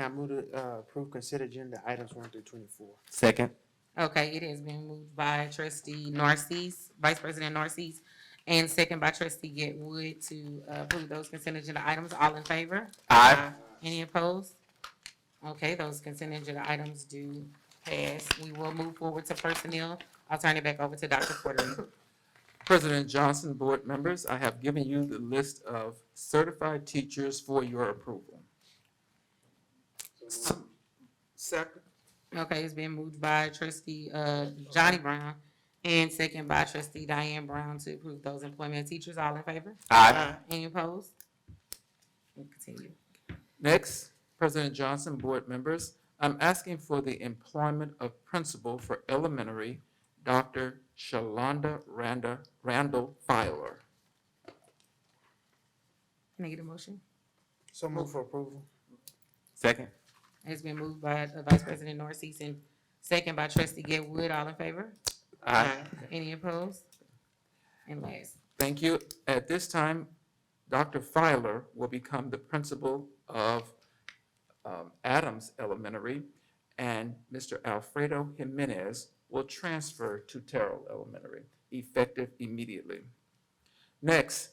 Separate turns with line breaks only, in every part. I move to uh, approve consent agenda items one through twenty-four.
Second.
Okay, it has been moved by trustee Narcisse, Vice President Narcisse, and second by trustee Getwood to uh, approve those consent agenda items. All in favor?
Aye.
Any opposed? Okay, those consent agenda items do pass. We will move forward to personnel. I'll turn it back over to Dr. Porter.
President Johnson, board members, I have given you the list of certified teachers for your approval. Second.
Okay, it's been moved by trustee, uh, Johnny Brown and second by trustee Diane Brown to approve those employment of teachers. All in favor?
Aye.
Any opposed? We'll continue.
Next, President Johnson, board members, I'm asking for the employment of principal for elementary, Dr. Shalonda Randa, Randall Filer.
Can I get a motion?
So move for approval.
Second.
It's been moved by uh, Vice President Narcisse and second by trustee Getwood. All in favor?
Aye.
Any opposed? And last,
Thank you. At this time, Dr. Filer will become the principal of um, Adams Elementary, and Mr. Alfredo Jimenez will transfer to Terrell Elementary, effective immediately. Next,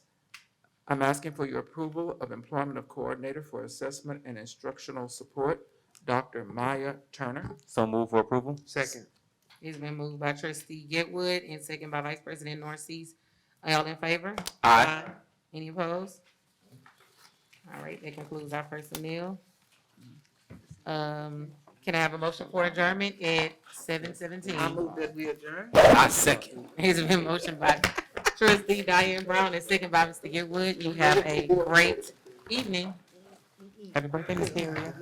I'm asking for your approval of employment of Coordinator for Assessment and Instructional Support, Dr. Maya Turner.
So move for approval.
Second.
it's been moved by trustee Getwood and second by Vice President Narcisse. All in favor?
Aye.
Any opposed? All right, that concludes our personnel. Um, can I have a motion for adjournment at seven seventeen?
that we adjourn.
I second.
It's been motioned by trustee Diane Brown and second by Mr. Getwood. You have a great evening. Happy birthday, Ms. Perry.